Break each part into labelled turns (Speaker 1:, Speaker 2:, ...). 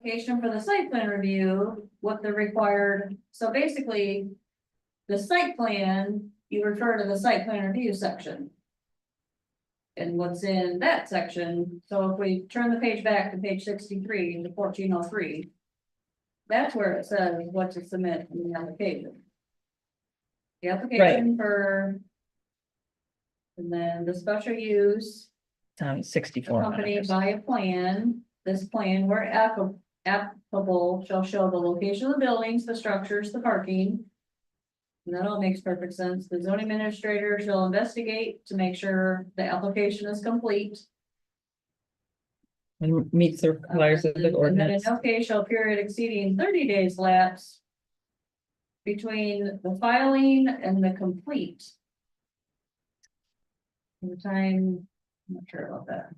Speaker 1: application for the site plan review, what the required, so basically. The site plan, you refer to the site plan review section. And what's in that section, so if we turn the page back to page sixty-three, to fourteen oh three. That's where it says what to submit in the application. The application for. And then the special use
Speaker 2: um, sixty-four.
Speaker 1: accompanied by a plan. This plan where appa- applicable shall show the location of the buildings, the structures, the parking. And that all makes perfect sense. The zoning administrator shall investigate to make sure the application is complete.
Speaker 2: And meets the requirements of the
Speaker 1: And then in
Speaker 2: ordinance.
Speaker 1: no case shall period exceeding thirty days lapse. Between the filing and the complete. In The time, I'm not sure about that.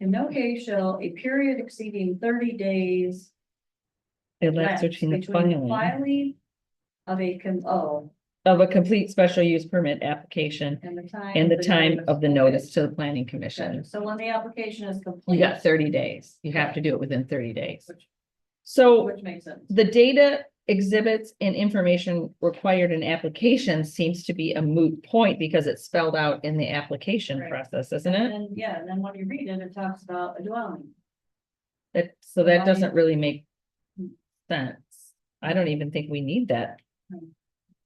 Speaker 1: In no case shall a period exceeding thirty days.
Speaker 2: It
Speaker 1: lapse
Speaker 2: lasts between the filing
Speaker 1: Filing of a, con- oh,
Speaker 2: of a complete special use permit application
Speaker 1: and the time.
Speaker 2: and the
Speaker 1: of
Speaker 2: time of the
Speaker 1: Okay,
Speaker 2: notice to the planning
Speaker 1: gotcha.
Speaker 2: commission.
Speaker 1: So when the application is complete.
Speaker 2: You got thirty days. You have to do it within thirty days.
Speaker 1: Which-
Speaker 2: So
Speaker 1: Which makes sense.
Speaker 2: the data exhibits and information required in applications seems to be a moot point because it's spelled out in the application
Speaker 1: Right.
Speaker 2: process, isn't
Speaker 1: And
Speaker 2: it?
Speaker 1: then, yeah, and then when you read it, it talks about a dwelling.
Speaker 2: That, so that
Speaker 1: Right.
Speaker 2: doesn't really make sense. I don't even think we need that.
Speaker 1: Right.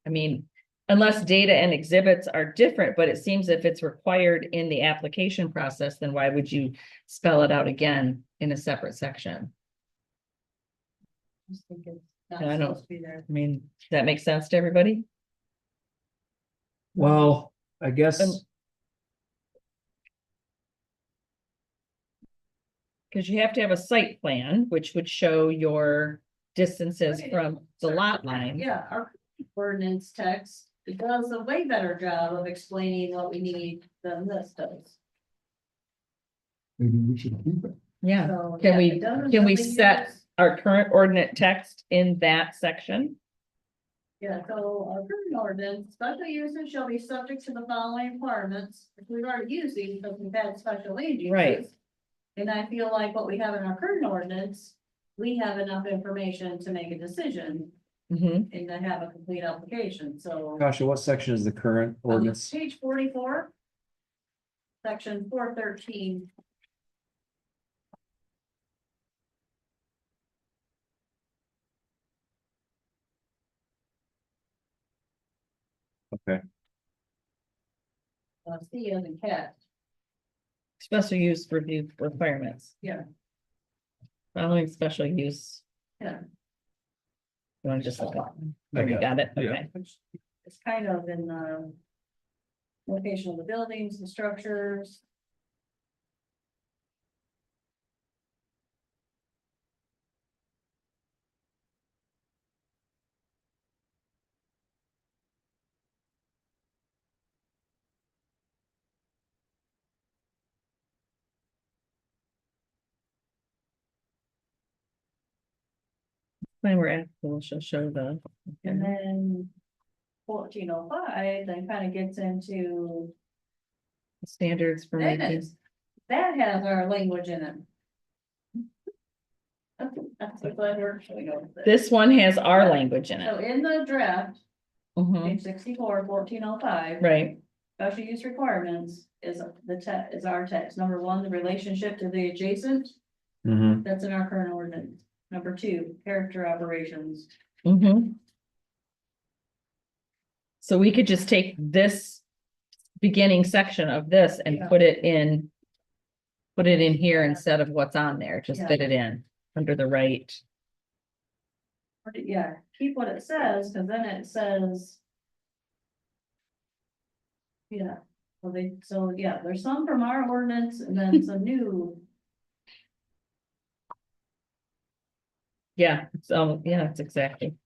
Speaker 2: I mean, unless data and exhibits are different, but it seems if it's required in the application process, then why would you spell it out again in a separate section?
Speaker 1: Just think it's not
Speaker 2: Yeah, I don't-
Speaker 1: supposed to be there.
Speaker 2: I mean, does that make sense to everybody?
Speaker 3: Well, I guess,
Speaker 2: And- Cause you have to have a site plan, which would show your distances
Speaker 1: Okay.
Speaker 2: from the lot line.
Speaker 1: Yeah, our ordinance text, it does a way better job of explaining what we need than this does.
Speaker 3: maybe we should keep it.
Speaker 2: Yeah.
Speaker 1: So,
Speaker 2: Can
Speaker 1: yeah,
Speaker 2: we-
Speaker 1: it doesn't
Speaker 2: can we
Speaker 1: really
Speaker 2: set-
Speaker 1: use-
Speaker 2: our current ordinate text in that section.
Speaker 1: Yeah, so our current ordinance, special uses shall be subject to the following requirements, which we've already used these, because we've had special land uses.
Speaker 2: Right.
Speaker 1: And I feel like what we have in our current ordinance, we have enough information to make a decision
Speaker 2: Mm-hmm.
Speaker 1: and to have a complete application, so.
Speaker 3: Kasha, what section is the current
Speaker 1: Um,
Speaker 3: ordinance?
Speaker 1: Page forty-four. Section four thirteen.
Speaker 3: Okay.
Speaker 1: Uh, C as in cat,
Speaker 2: Special use review requirements.
Speaker 1: Yeah.
Speaker 2: Following special use.
Speaker 1: Yeah.
Speaker 2: You wanna just look up?
Speaker 3: I
Speaker 2: You got it,
Speaker 3: yeah.
Speaker 2: okay.
Speaker 1: it's kind of in, um. Location of the buildings, the structures.
Speaker 2: When we're at, we'll show, show the.
Speaker 1: And
Speaker 2: Mhm.
Speaker 1: then fourteen oh five, then kind of gets into,
Speaker 2: Standards for
Speaker 1: That
Speaker 2: making,
Speaker 1: is- that has our language in it. That's, that's what we're showing over there.
Speaker 2: this one has our language in
Speaker 1: So
Speaker 2: it.
Speaker 1: in the draft,
Speaker 2: Mhm,
Speaker 1: page oh 64, 1405,
Speaker 2: Right,
Speaker 1: special use requirements is the te- is our text. Number one, the relationship to the adjacent,
Speaker 3: Mhm.
Speaker 1: that's in our current ordinance. Number two, character operations.
Speaker 2: mhm. So we could just take this beginning section of this
Speaker 1: Yeah.
Speaker 2: and put it in. Put it in here
Speaker 1: Yeah.
Speaker 2: instead of what's on there, just
Speaker 1: Yeah.
Speaker 2: fit it in under the right.
Speaker 1: Or, Yeah, keep what it says, because then it says. Yeah, well, they, so, yeah, there's some from our ordinance and then some new,
Speaker 2: Yeah, so, yeah, it's exactly.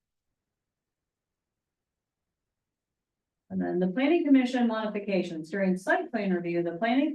Speaker 1: and then the planning commission modifications during site plan review, the planning